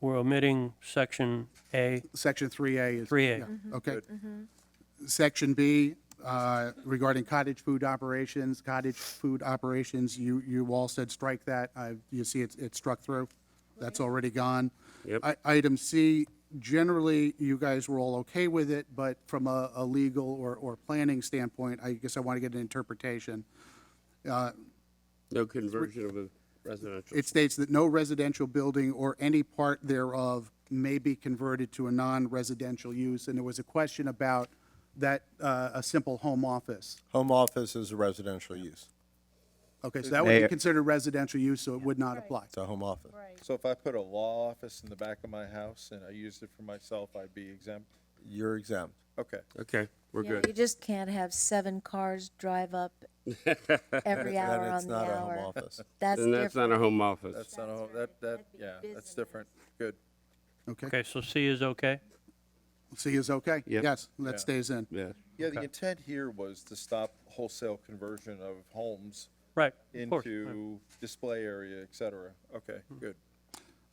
we're omitting section A, Section 3A is. 3A. yeah, Okay. Mm-hmm. Section B, uh, regarding cottage food operations, cottage food operations, you, you all said strike that. I- You see, it's, it's struck through. That's already gone. Yep. I- Item C, generally, you guys were all okay with it, but from a, a legal or, or planning standpoint, I guess I want to get an interpretation. No conversion of a residential. It states that no residential building or any part thereof may be converted to a non-residential use. And there was a question about that, uh, a simple home office. Home office is a residential use. Okay, so that would be Mayor- considered residential use, so it would not apply. It's a home office. So if I put a law office in the back of my house and I used it for myself, I'd be exempt? You're exempt. Okay. Okay, we're Yeah, You good. just can't have seven cars drive up every Then hour it's on the not a home hour. office. That's Then that's different. not a home office. That's not, a- that, that, yeah, that's different. Good. Okay, Okay, so C is okay? C is okay? Yep. Yes, that stays in. Yeah. Yeah, the intent here was to stop wholesale conversion of homes Right, of course. into display area, et cetera. Okay, good.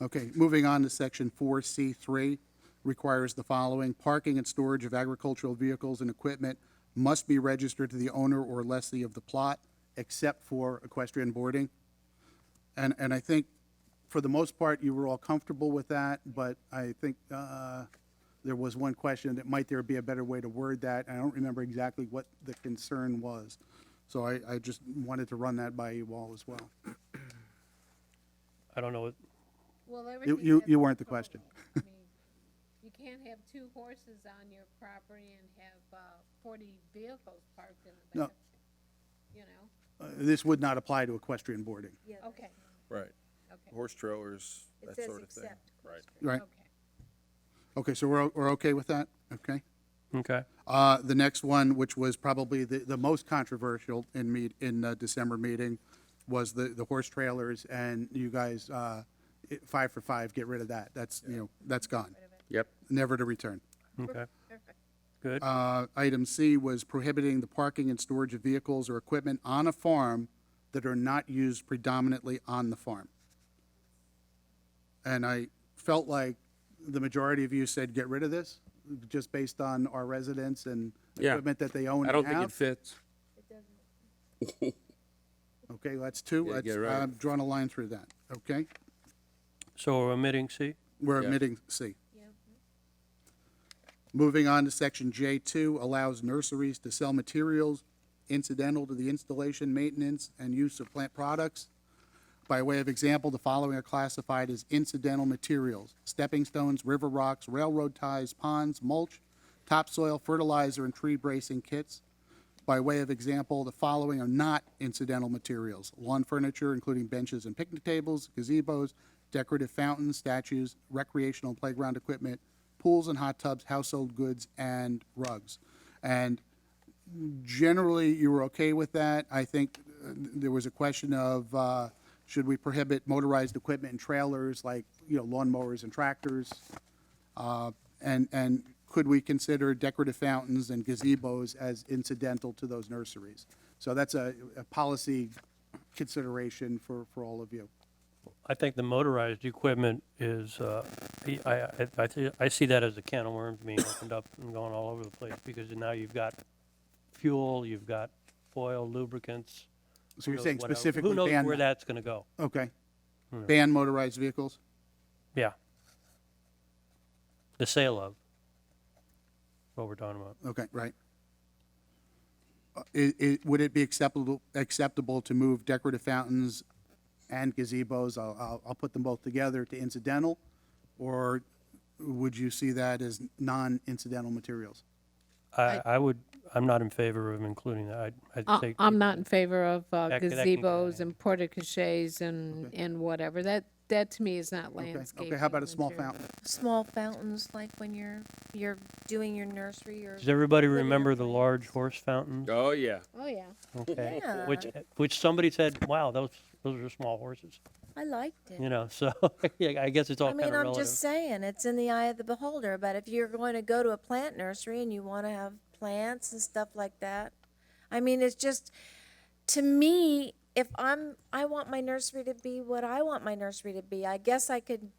Okay, moving on to section four C three, requires the following, parking and storage of agricultural vehicles and equipment must be registered to the owner or lessee of the plot, except for equestrian boarding. And, and I think, for the most part, you were all comfortable with that, but I think, uh, there was one question that might there be a better way to word that, and I don't remember exactly what the concern was. So I, I just wanted to run that by you all as well. I don't know, what- Well, You, everything you, has you a weren't the question. code. I mean, You can't have two horses on your property and have, uh, forty vehicles parked in the No. back. You know, Uh, This would not apply to equestrian boarding. okay, Right. okay, Horse trailers, that says sort of thing. except Right. Right, okay. okay, so we're, o- we're okay with that? Okay. okay. Uh, the next one, which was probably the, the most controversial in meet, in the December meeting, was the, the horse trailers, and you guys, uh, it- five for five, get rid of that, that's, you know, that's gone, Yep. never to return. Okay. Good. Uh, item C was prohibiting the parking and storage of vehicles or equipment on a farm that are not used predominantly on the farm. And I felt like the majority of you said, get rid of this, just based on our residents and Yeah. equipment that they own I and don't think it have. fits. Okay, that's two, Yeah, that's, get right. I've drawn a line through that, okay? So we're omitting C? We're Yeah. omitting C. Moving on to section J two, allows nurseries to sell materials incidental to the installation, maintenance, and use of plant products. By way of example, the following are classified as incidental materials, stepping stones, river rocks, railroad ties, ponds, mulch, topsoil, fertilizer, and tree bracing kits. By way of example, the following are not incidental materials, lawn furniture, including benches and picnic tables, gazebos, decorative fountains, statues, recreational and playground equipment, pools and hot tubs, household goods, and rugs. And generally, you were okay with that. I think uh, there was a question of, uh, should we prohibit motorized equipment and trailers, like, you know, lawnmowers and tractors? Uh, And, and could we consider decorative fountains and gazebos as incidental to those nurseries? So that's a, a policy consideration for, for all of you. I think the motorized equipment is, uh, I, I, I, thi- I see that as a can of worms being opened up and going all over the place, because now you've got fuel, you've got oil, lubricants. So you're who knows saying what else- specifically Who knows ban where Hmm. that? that's gonna go? Okay. Ban motorized vehicles? Yeah. The sale of, what we're talking about. Okay, right. It, it, would it be acceptable, acceptable to move decorative fountains and gazebos, I'll, I'll, I'll put them both together to incidental? Or would you see that as non-incidental materials? I, I would, I'm not in favor of including that. I, Uh, I I, think. I'm not in favor of uh, That- that can go gazebos in. and porta cachets and, and whatever. That, that to me is not Okay, landscaping. Okay, how about a small material. fountain? Small fountains, like when you're, you're doing your nursery or. Does everybody living remember the arrangements. large horse fountains? Oh, yeah. Oh, yeah. Okay. Which, which somebody said, wow, those, those are small horses, I liked it. you know, so, yeah, I guess it's all I kind of mean, I'm relative. just saying, it's in the eye of the beholder, but if you're going to go to a plant nursery and you want to have plants and stuff like that, I mean, it's just, to me, if I'm, I want my nursery to be what I want my nursery to be, I guess I could